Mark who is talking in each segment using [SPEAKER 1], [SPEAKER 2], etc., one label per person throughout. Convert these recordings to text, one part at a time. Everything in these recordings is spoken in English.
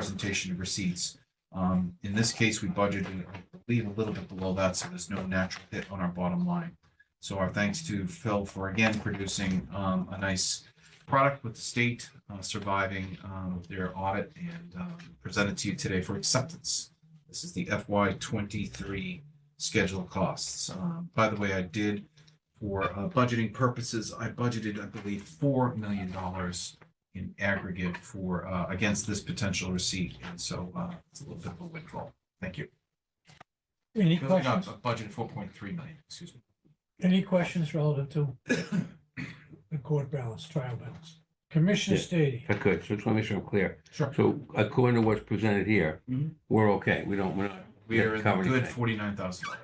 [SPEAKER 1] presentation of receipts. Um, in this case, we budgeted, I believe, a little bit below that, so there's no natural hit on our bottom line. So our thanks to Phil for again producing, um, a nice product with the state, uh, surviving, um, their audit and, um, presented to you today for acceptance. This is the FY twenty-three schedule costs. Um, by the way, I did for uh, budgeting purposes, I budgeted, I believe, four million dollars in aggregate for, uh, against this potential receipt, and so, uh, it's a little bit of a windfall. Thank you.
[SPEAKER 2] Any
[SPEAKER 1] No, no,
[SPEAKER 2] questions,
[SPEAKER 1] Budget four point three million, excuse me.
[SPEAKER 2] any questions relative to the court balance, trial balance? Commissioner
[SPEAKER 3] Yeah.
[SPEAKER 2] Stady,
[SPEAKER 3] I could, so just want to make sure I'm clear.
[SPEAKER 1] Sure.
[SPEAKER 3] So according to what's presented here,
[SPEAKER 1] Mhm.
[SPEAKER 3] we're okay. We don't, we're not.
[SPEAKER 1] We are in the
[SPEAKER 3] covering
[SPEAKER 1] good
[SPEAKER 3] anything.
[SPEAKER 1] forty-nine thousand dollars.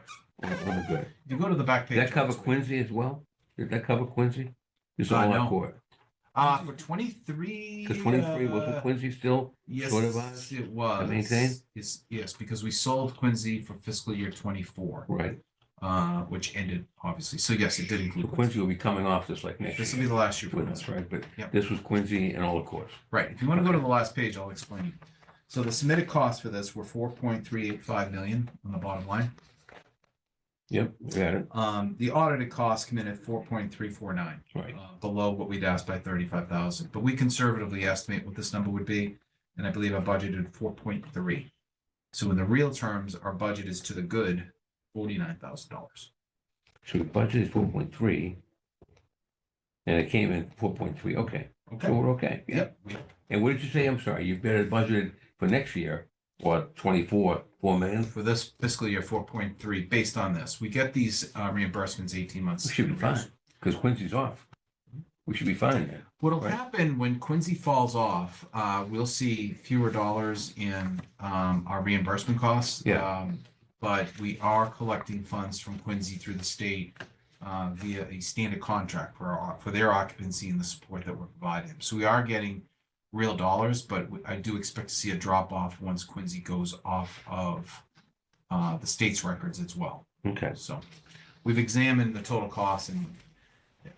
[SPEAKER 3] We're- we're good.
[SPEAKER 1] You go to the back page.
[SPEAKER 3] Did that cover
[SPEAKER 1] Alex, wait.
[SPEAKER 3] Quincy as well? Did that cover Quincy? This is
[SPEAKER 1] Uh,
[SPEAKER 3] all
[SPEAKER 1] no.
[SPEAKER 3] I court.
[SPEAKER 1] Uh, for twenty-three.
[SPEAKER 3] Because twenty-three, wasn't
[SPEAKER 1] uh,
[SPEAKER 3] Quincy still? sort of
[SPEAKER 1] Yes,
[SPEAKER 3] us
[SPEAKER 1] it was.
[SPEAKER 3] maintain?
[SPEAKER 1] Yes, yes, because we sold Quincy for fiscal year twenty-four,
[SPEAKER 3] Right.
[SPEAKER 1] uh, which ended obviously. So yes, it did
[SPEAKER 3] So
[SPEAKER 1] include Quincy.
[SPEAKER 3] Quincy will be coming off this like next
[SPEAKER 1] This will be
[SPEAKER 3] year.
[SPEAKER 1] the last year for
[SPEAKER 3] with
[SPEAKER 1] us,
[SPEAKER 3] us, right? But
[SPEAKER 1] Yep.
[SPEAKER 3] this was Quincy and all the courts.
[SPEAKER 1] Right, if you want to go to the last page, I'll explain. So the submitted costs for this were four point three eight five million on the bottom line.
[SPEAKER 3] Yep, we got it.
[SPEAKER 1] Um, the audited costs come in at four point three four nine, uh,
[SPEAKER 3] Right.
[SPEAKER 1] below what we'd asked by thirty-five thousand. But we conservatively estimate what this number would be, and I believe I budgeted four point three. So in the real terms, our budget is to the good, forty-nine thousand dollars.
[SPEAKER 3] So the budget is four point three. And it came in four point three. Okay, so
[SPEAKER 1] Okay,
[SPEAKER 3] we're okay. Yeah.
[SPEAKER 1] yep, we-
[SPEAKER 3] And what did you say? I'm sorry, you've got it budgeted for next year, what, twenty-four, four million?
[SPEAKER 1] for this fiscal year, four point three, based on this, we get these uh, reimbursements eighteen months.
[SPEAKER 3] We should be
[SPEAKER 1] in arrears.
[SPEAKER 3] fine, because Quincy's off. We should be fine then.
[SPEAKER 1] What'll
[SPEAKER 3] Right.
[SPEAKER 1] happen when Quincy falls off, uh, we'll see fewer dollars in, um, our reimbursement costs.
[SPEAKER 3] Yeah.
[SPEAKER 1] Um, But we are collecting funds from Quincy through the state, uh, via a standard contract for our, for their occupancy and the support that we're providing. So we are getting real dollars, but we- I do expect to see a drop off once Quincy goes off of, uh, the state's records as well.
[SPEAKER 3] Okay.
[SPEAKER 1] So we've examined the total cost and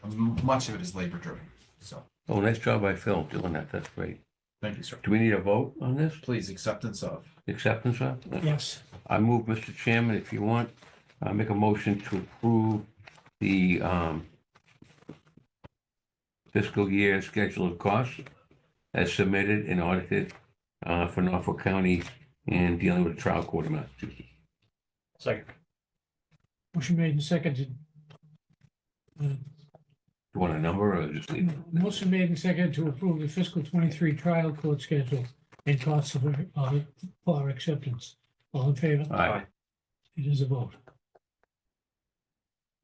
[SPEAKER 1] uh, much of it is labor driven, so.
[SPEAKER 3] Oh, nice job by Phil doing that, that's great.
[SPEAKER 1] Thank you, sir.
[SPEAKER 3] Do we need a vote on this,
[SPEAKER 1] Please, acceptance of.
[SPEAKER 3] acceptance of?
[SPEAKER 2] yes,
[SPEAKER 3] I move, Mr. Chairman, if you want, I make a motion to approve the um, fiscal year schedule of costs as submitted and audited uh, for Norfolk County and dealing with the trial court of Massachusetts.
[SPEAKER 2] motion made and seconded. Uh,
[SPEAKER 3] Do you want a number or just leave it?
[SPEAKER 2] Motion made and seconded to approve the fiscal twenty-three trial court schedule and costs of, uh, for acceptance. All in favor?
[SPEAKER 3] Aye.
[SPEAKER 2] It is a vote.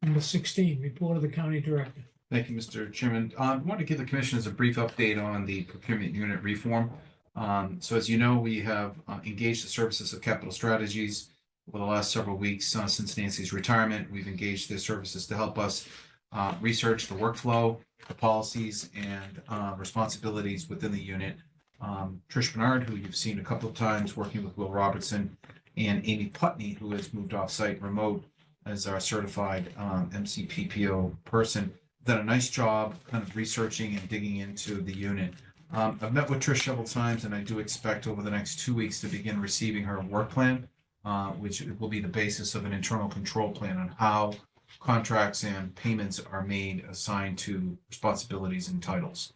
[SPEAKER 2] Number sixteen, report of the county director.
[SPEAKER 1] Thank you, Mr. Chairman. Uh, I want to give the commissioners a brief update on the procurement unit reform. Um, so as you know, we have uh, engaged the services of Capital Strategies over the last several weeks uh, since Nancy's retirement. We've engaged their services to help us uh, research the workflow, the policies, and uh, responsibilities within the unit. Um, Trish Bernard, who you've seen a couple of times, working with Will Robertson, and Amy Putney, who has moved off-site remote as our certified um, MCPPO person done a nice job kind of researching and digging into the unit. Um, I've met with Trish several times and I do expect over the next two weeks to begin receiving her work plan, uh, which will be the basis of an internal control plan on how contracts and payments are made assigned to responsibilities and titles.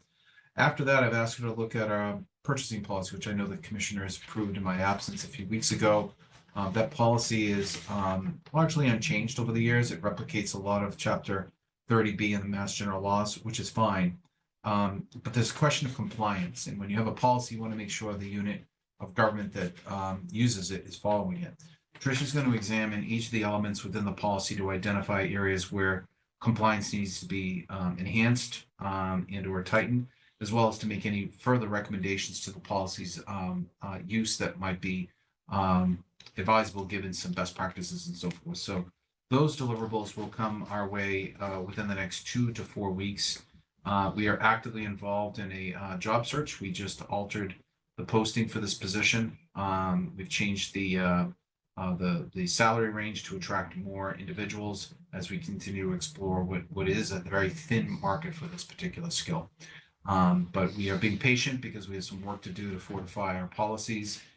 [SPEAKER 1] After that, I've asked her to look at our purchasing policy, which I know the commissioners approved in my absence a few weeks ago. Uh, that policy is, um, largely unchanged over the years. It replicates a lot of chapter thirty B in the Mass General laws, which is fine. Um, but there's a question of compliance, and when you have a policy, you want to make sure the unit of government that um uses it is following it. Tricia's going to examine each of the elements within the policy to identify areas where compliance needs to be um enhanced um and or tightened, as well as to make any further recommendations to the policy's um uh use that might be um advisable given some best practices and so forth. So those deliverables will come our way uh, within the next two to four weeks. Uh, We are actively involved in a uh, job search. We just altered the posting for this position. Um, We've changed the, uh, uh, the, the salary range to attract more individuals as we continue to explore what, what is a very thin market for this particular skill. Um, but we are being patient because we have some work to do to fortify our policies